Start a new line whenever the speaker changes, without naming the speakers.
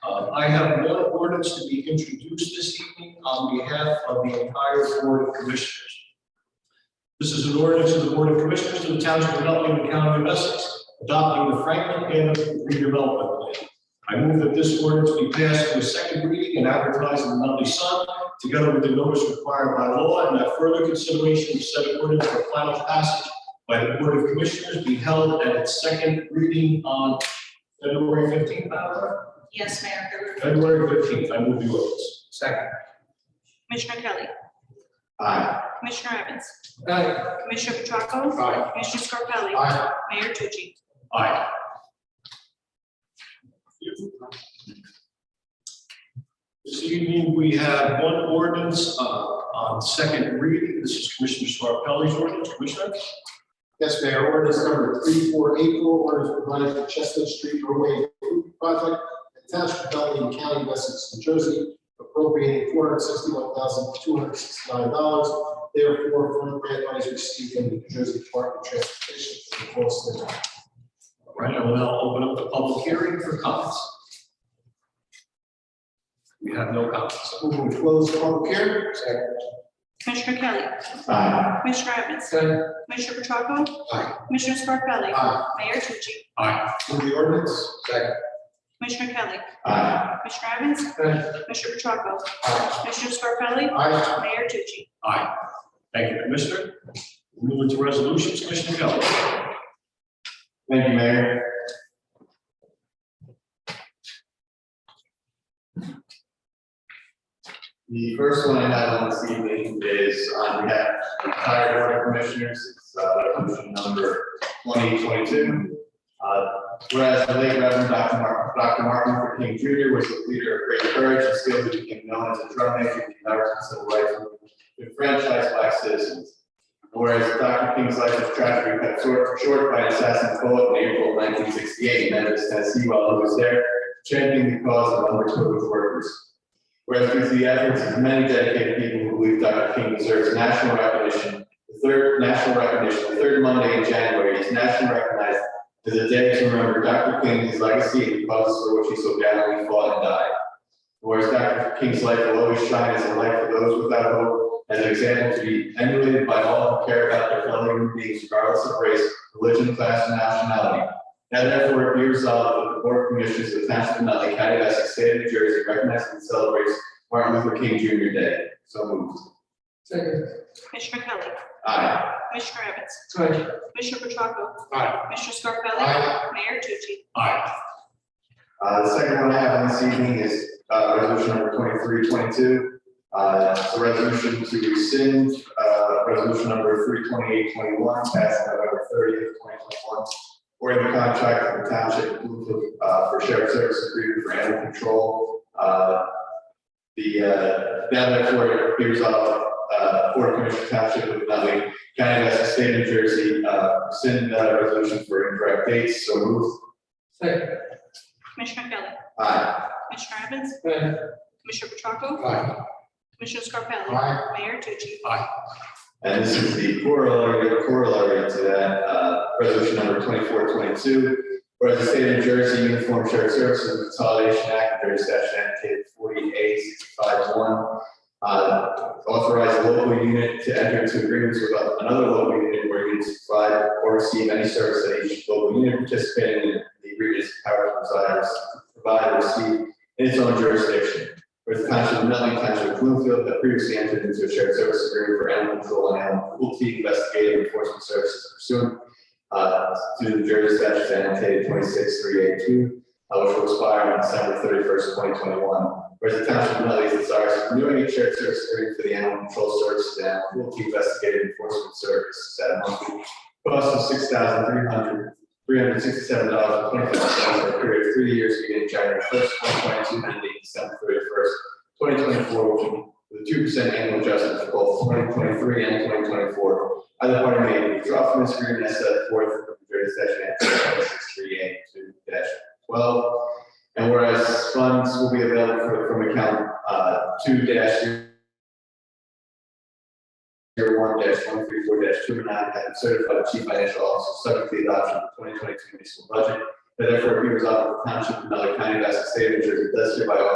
Uh, I have one ordinance to be introduced this evening on behalf of the entire Board of Commissioners. This is an ordinance of the Board of Commissioners of the Township of Nutley, the County of Essex, adopting the Franklin and redevelopment plan. I move that this ordinance be passed with second reading and advertised in the Nutley Sun, together with the notice required by law, and that further consideration of said ordinance for final passage by the Board of Commissioners be held at its second reading on February fifteenth,
Yes, Mayor.
February fifteenth, I move the ordinance.
Second.
Commissioner Kelly.
Aye.
Commissioner Evans.
Aye.
Commissioner Petracco.
Aye.
Commissioner Scarpelli.
Aye.
Mayor Tucci.
Aye. This evening, we have one ordinance uh, on second reading. This is Commissioner Scarpelli's ordinance. Commissioner?
Yes, Mayor, ordinance number three four eight four, ordinance providing for Chestnut Street roadway improvement project in Township of Nutley County, Essex, New Jersey, appropriating four hundred sixty-one thousand two hundred sixty-nine dollars. Therefore, from grant money received from the New Jersey Department of Transportation for the course of the night.
All Right, I will now open up the public hearing for comments. We have no comments.
Move to close the public hearing. Second.
Commissioner Kelly.
Aye.
Commissioner Evans.
Aye.
Commissioner Petracco.
Aye.
Commissioner Scarpelli.
Aye.
Mayor Tucci.
Aye.
Move the ordinance. Second.
Commissioner Kelly.
Aye.
Commissioner Evans.
Aye.
Commissioner Petracco.
Aye.
Commissioner Scarpelli.
Aye.
Mayor Tucci.
Aye. Thank you, Commissioner. Moving to resolutions, Commissioner Kelly.
Thank you, Mayor.
The first one I have on this evening is on behalf of the entire board of commissioners, it's uh, resolution number twenty twenty-two. Whereas the late Reverend Dr. Martin, Dr. Martin Luther King Jr. was a leader of great courage and skill who became known as a troublemaker in the American Civil Rights Movement, enfranchised black citizens. Whereas Dr. King's life was tragically cut short short by an assassin bullet in April nineteen sixty-eight, in Memphis, Tennessee, while he was there championing the cause of underprivileged workers. Whereas through the efforts of many dedicated people who believe Dr. King deserves national recognition, the third national recognition, the third Monday in January is nationally recognized as a day to remember Dr. King, his legacy, and the causes for which he so gallantly fought and died. Whereas Dr. King's life will always shine as a light for those without hope, as an example to be emulated by all who care about their fellow human beings regardless of race, religion, class, and nationality. Now therefore, be resolved that the Board of Commissioners of the Township of Nutley County of Essex, State of New Jersey, recognizes and celebrates Martin Luther King Jr. Day. So moved.
Second.
Commissioner Kelly.
Aye.
Commissioner Evans.
Aye.
Commissioner Petracco.
Aye.
Commissioner Scarpelli.
Aye.
Mayor Tucci.
Aye.
Uh, the second one I have on this evening is, uh, resolution number twenty-three, twenty-two. Uh, it's a resolution to rescind, uh, resolution number three twenty-eight, twenty-one, passed November thirtieth, twenty twenty-one. Or in the contract of the township, of Bloomfield, uh, for shared service agreement for animal control. Uh, the, uh, now therefore be resolved, uh, Board of Commissioners Township of Nutley County of Essex State of New Jersey, uh, rescind that resolution for incorrect dates, so moved.
Second.
Commissioner Kelly.
Aye.
Commissioner Evans.
Aye.
Commissioner Petracco.
Aye.
Commissioner Scarpelli.
Aye.
Mayor Tucci.
And this is the corollary, corollary to that, uh, resolution number twenty-four twenty-two. Whereas the state of New Jersey Uniform Shared Services and Consolidation Act, there is section annotated forty-eight sixty-five one. Uh, authorize a local unit to enter into agreements with another local unit where units provide or receive any service that each local unit participating in the agreement is empowered to provide, provide or receive in its own jurisdiction. Whereas the township of Nutley, township of Bloomfield, had previously entered into a shared service agreement for animal control and animal cruelty investigative enforcement services pursuant uh, to the New Jersey statute annotated twenty-six three eight two, uh, which will expire on December thirty-first, twenty twenty-one. Whereas the township of Nutley desires to renew a shared service agreement for the animal control services and animal cruelty investigative enforcement services at a monthly cost of six thousand three hundred, three hundred sixty-seven dollars and twenty-five cents for a period of three years beginning January first, twenty twenty-two, and ending December thirty-first, twenty twenty-four, with a two percent annual adjustment for both twenty twenty-three and twenty twenty-four. Either party may withdraw from this agreement as set forth in the Jersey Statute six three eight two twelve. And whereas funds will be available for- from account uh, two dash zero one dash one three four dash two nine, having certified chief financial officer, subject to the adoption of the twenty twenty-two municipal budget that therefore appears out of the township of Nutley County, Essex State, of New Jersey, does hereby